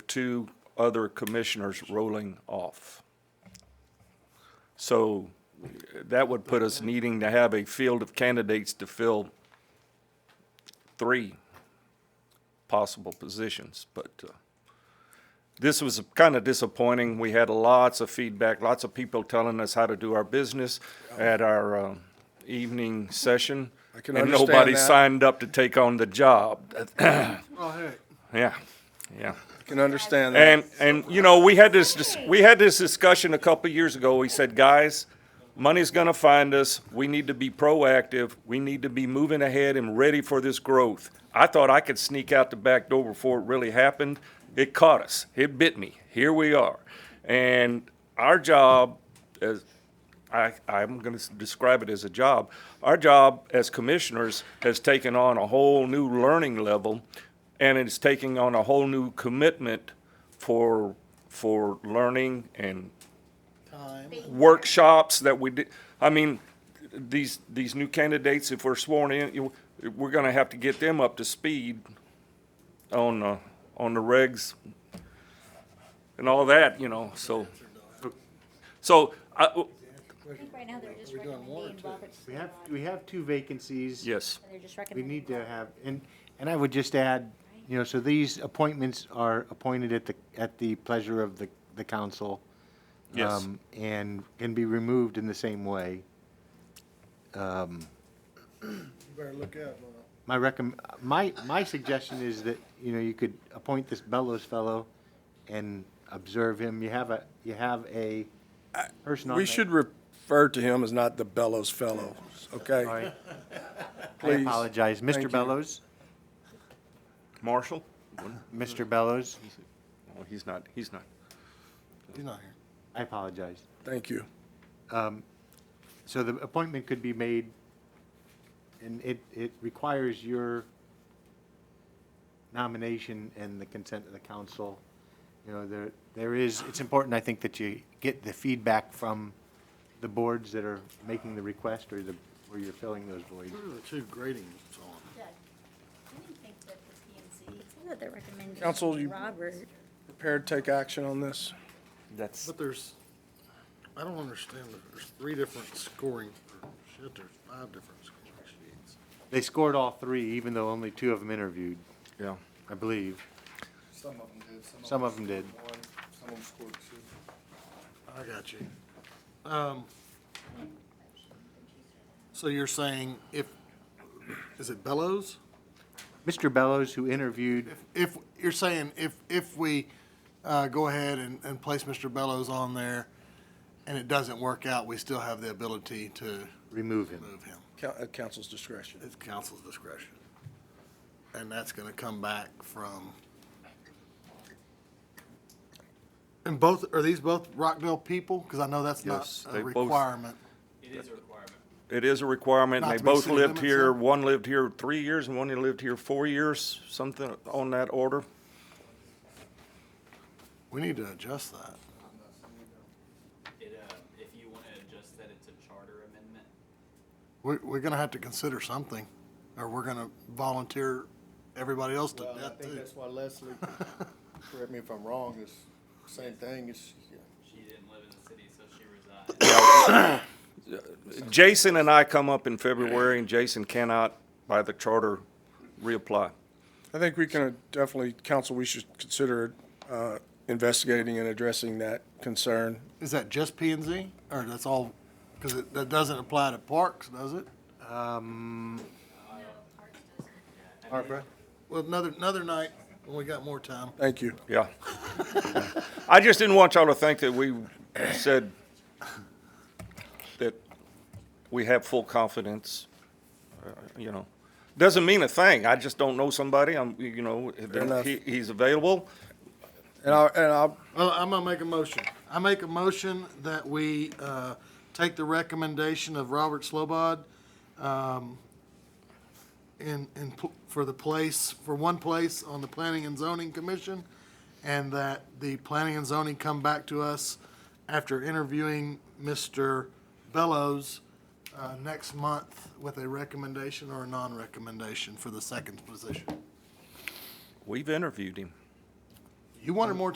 two other commissioners rolling off. So that would put us needing to have a field of candidates to fill three possible positions, but uh, this was kind of disappointing. We had lots of feedback, lots of people telling us how to do our business at our um, evening session. I can And nobody understand that. signed up to take on the job. Oh, heck. Yeah, yeah. Can understand that. And, and, you know, we had this, dis- we had this discussion a couple of years ago. We said, guys, money's gonna find us. We need to be proactive. We need to be moving ahead and ready for this growth. I thought I could sneak out the back door before it really happened. It caught us. It bit me. Here we are. And our job as, I, I'm gonna s- describe it as a job. Our job as commissioners has taken on a whole new learning level, and it's taking on a whole new commitment for, for learning and workshops that we did, I mean, these, these new candidates, if we're sworn in, you, we're gonna have to get them up to speed on, uh, on the regs and all that, you know, so. So, I, I think right now they're just We're doing one or recommending two. Robert's. We have, we have two vacancies. yes. They're just We recommending. need to Robert. have, and, and I would just add, you know, so these appointments are appointed at the, at the pleasure of the, the council. Yes. um, And can be removed in the same way. You better look out, Laura. My recom, my, my suggestion is that, you know, you could appoint this Bellows fellow and observe him. You have a, you have a person on We that- should refer to him as not the Bellows Fellow, okay? All right, I Please. apologize. Thank you. Mr. Bellows, Marshall? Mr. Bellows, Oh, he's not, he's not. He's not here. I apologize. Thank you. So the appointment could be made, and it, it requires your nomination and the consent of the council. You know, there, there is, it's important, I think, that you get the feedback from the boards that are making the request or the, where you're filling those voids. Who are the two gradings on? Doug, I didn't think that the PNC, I thought they're recommending Counsel, you- Robert. Prepared to take action on this? That's. But there's, I don't understand, there's three different scoring, shit, there's five different scoring sheets. They scored all three, even though only two of them interviewed, Yeah. I believe. Some of them did. Some of them did. scored One, some of them scored two. I got you. Um, so you're saying if, is it Bellows? Mr. Bellows, who interviewed, If, you're saying if, if we, uh, go ahead and, and place Mr. Bellows on there and it doesn't work out, we still have the ability to remove him. remove him? Coun- At council's discretion. It's council's discretion. And that's gonna come back from. And both, are these both Rockville people? Because I know that's not Yes, they a both- requirement. It is a requirement. Not They to be both city lived limits, here, though? one lived here three years and one lived here four years, something on that order. We need to adjust that. It, uh, if you want to adjust that, it's a charter amendment. We're, we're gonna have to consider something, or we're gonna volunteer everybody else to Well, Uh, I death think too. that's why Leslie, correct me if I'm wrong, it's same thing, it's, She didn't live in the city, so she resigned. Jason and I come up in February and Jason cannot, by the charter, reapply. I think we can uh, definitely, council, we should consider uh, investigating and addressing that concern. Is that just P and Z, or that's all, because it, that doesn't apply to parks, does it? Barbara? Well, another, another night, when we got more time. Thank you. Yeah. I just didn't want y'all to think that we said that we have full confidence, uh, you know. Doesn't mean a thing. I just don't know somebody. I'm, you know, enough. he, he's available. And I'll, and I'll, Well, I'm gonna make a motion. I make a motion that we, uh, take the recommendation of Robert Slobod, um, in, in, pl- for the place, for one place on the Planning and Zoning Commission, and that the Planning and Zoning come back to us after interviewing Mr. Bellows, uh, next month with a recommendation or a non-recommendation for the second position. We've interviewed him. You wanted more